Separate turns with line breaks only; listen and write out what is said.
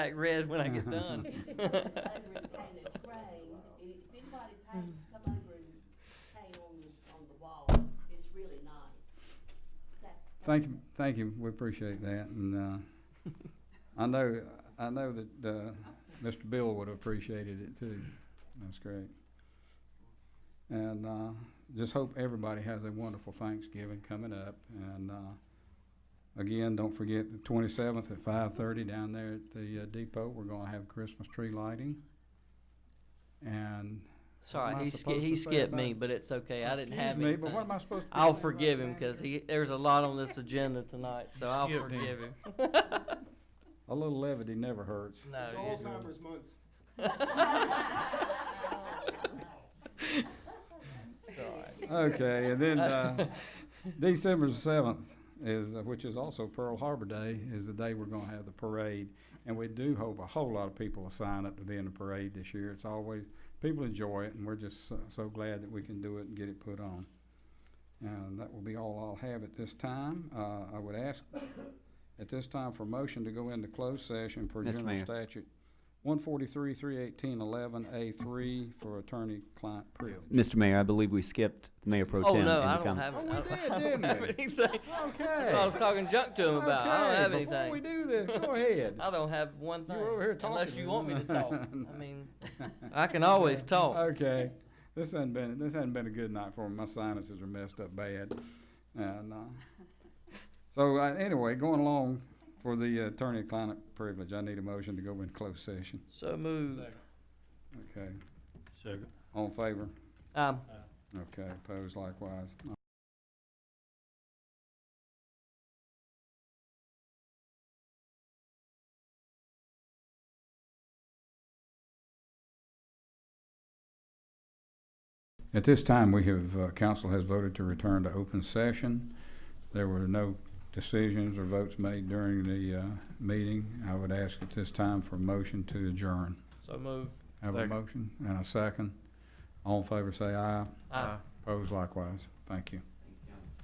back red when I get
Mm-hmm.
done.
over and and it's rained, and if anybody paints, come over and paint on the, on the wall, it's really nice. That-
Thank you, thank you, we appreciate that, and, uh, I know, I know that, uh, Mr. Bill would have appreciated it too, that's great. And, uh, just hope everybody has a wonderful Thanksgiving coming up, and, uh, again, don't forget the twenty-seventh at five-thirty down there at the uh, depot, we're gonna have Christmas tree lighting. And, What am
Sorry,
I
he skipped,
supposed
he
to say
skipped
about
me,
it?
but it's okay. I didn't
excuse
have
me, but what
anything.
am I supposed to?
I'll forgive him because he, there's a lot on this agenda tonight, so I'll
skipped him.
forgive him.
A little levity never hurts.
No,
It's
you-
Alzheimer's month.
it's all right.
Okay, and then, uh, December seventh is, uh, which is also Pearl Harbor Day, is the day we're gonna have the parade. And we do hope a whole lot of people will sign up to be in the parade this year. It's always, people enjoy it, and we're just so- so glad that we can do it and get it put on. And that will be all I'll have at this time. Uh, I would ask at this time for motion to go into closed session per
Mr.
general
Mayor.
statute one forty-three, three eighteen, eleven, A three for attorney-client privilege.
Mr. Mayor, I believe we skipped Mayor Pro Tem
Oh,
in
no,
the
I don't
comment.
have,
Oh,
it.
we
I don't-
did,
I don't
didn't
have
we?
anything.
Okay.
That's what I was talking junk to him about. I don't
Okay,
have
Before we
anything.
do this, go ahead.
I don't have one thing.
You were over here
Unless
talking.
you want me to talk. I mean, I can always talk.
Okay, this hasn't been, this hasn't been a good night for me. My sinuses are messed up bad. And, uh, so, uh, anyway, going along for the attorney-client privilege, I need a motion to go in closed session.
So move.
Okay,
Second.
all in favor?
Um,
Okay, opposed likewise. At this time, we have, uh, council has voted to return to open session. There were no decisions or votes made during the, uh, meeting. I would ask at this time for a motion to adjourn.
so move.
Have a
Second.
motion and a second. All in favor, say aye.
Uh,
Opposed likewise. Thank you.